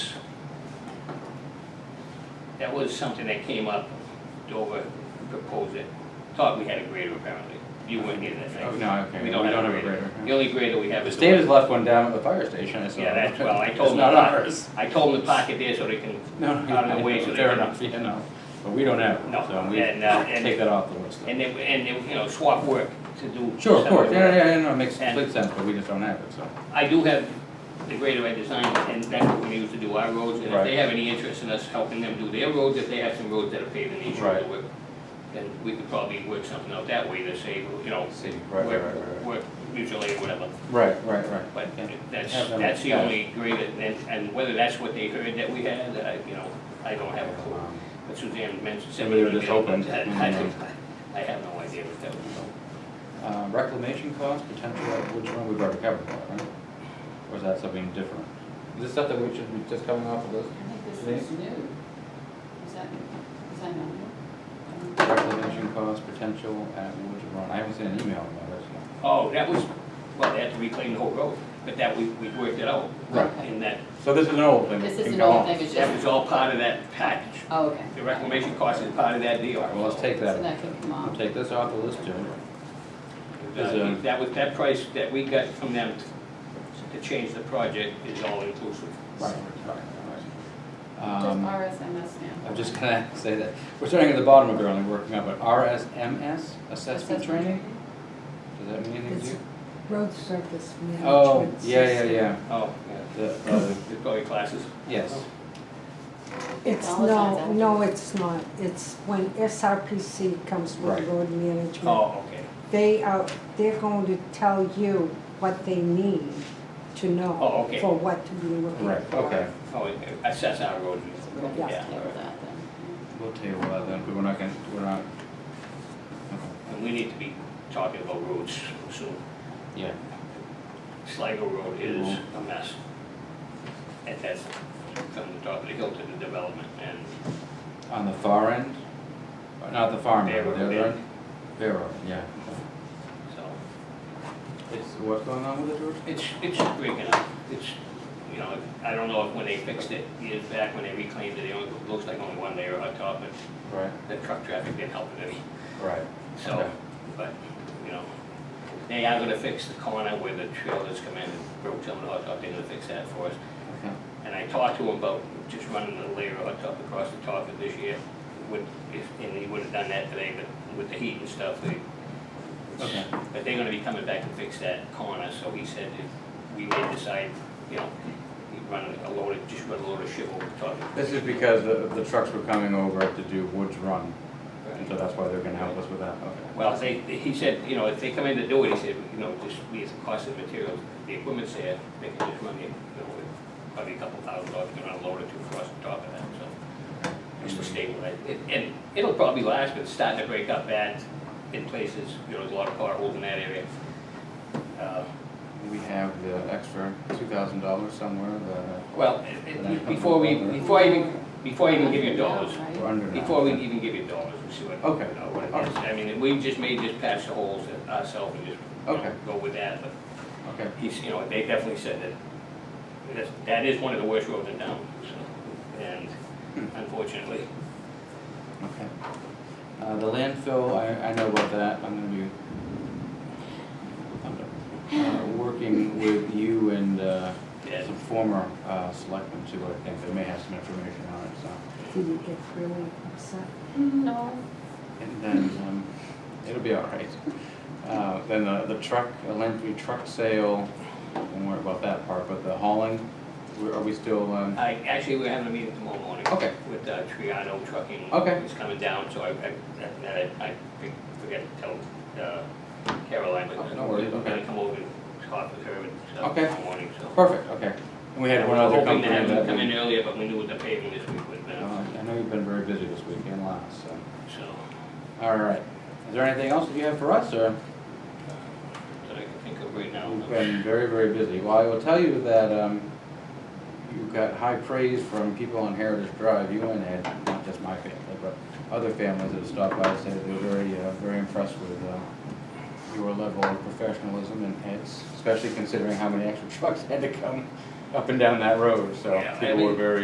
That was something that came up, Dover proposed it. Thought we had a grader apparently. You weren't here that night. Oh, no, okay, we don't have a grader, yeah. The only grader we have is. the Dave has one- left one down at the fire station, I saw. Yeah, that's, well, I told It's him. not to park- ours. I told him to park it there so they can, No, out of the no, way so they fair can. enough, you know, but we don't have one, No, so we and, uh, and- take that off the list. And they, and they, you know, swap work to do. Sure, of some course, the yeah, work. yeah, yeah, no, it makes And- complete sense, but we just don't have it, so. I do have the grader I designed, and that's what we use to do our roads, and if they Right. have any interest in us helping them do their roads, if they have some roads that are paved and they should Right. work, then we could probably work something out that way to save, you know, See, right, right, work, right, right. work mutually or whatever. Right, right, right. But Yeah. that's, Have them that's the cash. only grader, and, and whether that's what they heard that we had, I, you know, I don't have a clue. Um, But Suzanne mentioned. Maybe they were just Mm-hmm. open. I, I I have no idea what that was. Uh, Reclamation costs, potential, uh, which one we've already covered, that, right? Or is that something different? Is this stuff that we should be just coming off of this? I think this is new. Is that, is that not new? Reclamation costs, potential, at Woods Run, I haven't seen an email about this yet. Oh, that was, well, they had to reclaim the whole road, but that, we, we worked it out. Right. And that, So this is an old thing. This that is can an go old on. thing, it's that just, was all part of that package. oh, okay. The reclamation cost is part of that deal. Well, let's take So that, that could come we'll off. take this off the list too. Uh, um, That was, that price that we got from them to- to change the project is all inclusive. Right, right, right. Just Um, RSMS now. I'm just gonna say that, we're starting at the bottom of the barrel and working up, but RSMS, assessment Assessment training? Does that mean anything to you? Road surface management. Oh, yeah, yeah, system. yeah, Oh, yeah, the, uh, the probably classes. yes, It's All the signs no, after. no, it's not. It's when SRPC comes Right. with road management. Oh, okay. They are, they're going to tell you what they need to Oh, know okay. for what to be looking right, for. okay. Oh, it- it assess our road. Yeah. Yeah. Yeah, with that then. We'll table that then, but we're not gonna, we're not. And we need to be talking about roads soon. Yeah. Sligo Road is a mess. And that's from the top of the hill to the development and On the far end, Uh, not the farm end, Fair the Road other end. end? Fair Road, yeah. so. It's, what's going on with it, George? It's, it's breaking up. It's, you know, I don't know if when they fixed it years back, when they reclaimed it, it only- it looks like only one layer on top, but Right, the truck traffic didn't help it any. right. So, Okay. but, you know, they are gonna fix the corner where the trailers come in and broke some of the hot top. They're gonna fix that for us. Okay. And I talked to him about just running the layer on top across the top of this year, with, if, and he would have done that today, but with the heat and stuff, they. Okay. But they're gonna be coming back to fix that corner, so he said if we may decide, you know, he'd run a load of, just run a load of shit over the top. This is because the, the trucks were coming over to do Woods Run, and so that's why they're gonna help us with that, okay. Well, they, he said, you know, if they come in to do it, he said, you know, just leave the cost of materials, the equipment's there, they can just run it, you know, with probably a couple thousand dollars, you know, load or two across the top of that, so. Just to stabilize, it, and it'll probably last, but it's starting to break up bad in places, you know, there's a lot of potholes in that area. Uh, We have the extra two thousand dollars somewhere, the, Well, it- it- before we, before I even, before I even give you dollars, we're under now. Before we even give you dollars, we see what, Okay. you know, what it is. I mean, we just may just patch the holes ourselves and just, you Okay. know, go with that, but Okay, he's, you know, they definitely said that, that's- that is one of the worst roads in town, so, and unfortunately. okay. Uh, the landfill, I, I know about that, I'm gonna be uh, working with you and, uh, Yeah. some former, uh, selectmen too, I think, they may have some information on it, so. Did you get really upset? No, And then, um, it'll be all right. Uh, then the, the truck, the landfill truck sale, don't worry about that part, but the hauling, we- are we still, um, I, actually, we're having a meeting tomorrow morning. Okay. With uh, Triano Trucking. Okay. It's coming down, so I, I, that- that I, I think- forget to tell uh, Caroline, but. Oh, no worries, I'm gonna okay. come over and talk with her and stuff Okay. tomorrow morning, so. perfect, okay. And we had one other company Hoping to have that them come we- in earlier, but we knew with the paving this week would have Uh, I know you've been very busy this week and last, so. been, so, All right. Is there anything else that you have for us, or? that I can think of right now. We've been very, very busy. Well, I will tell you that um, you got high praise from people on Heritage Drive, you and Ed, not just my family, but other families that have stopped by, said they were very, uh, very impressed with uh, your level of professionalism and Ed's, especially considering how many extra trucks had to come up and down that road, so Yeah, I people were mean- very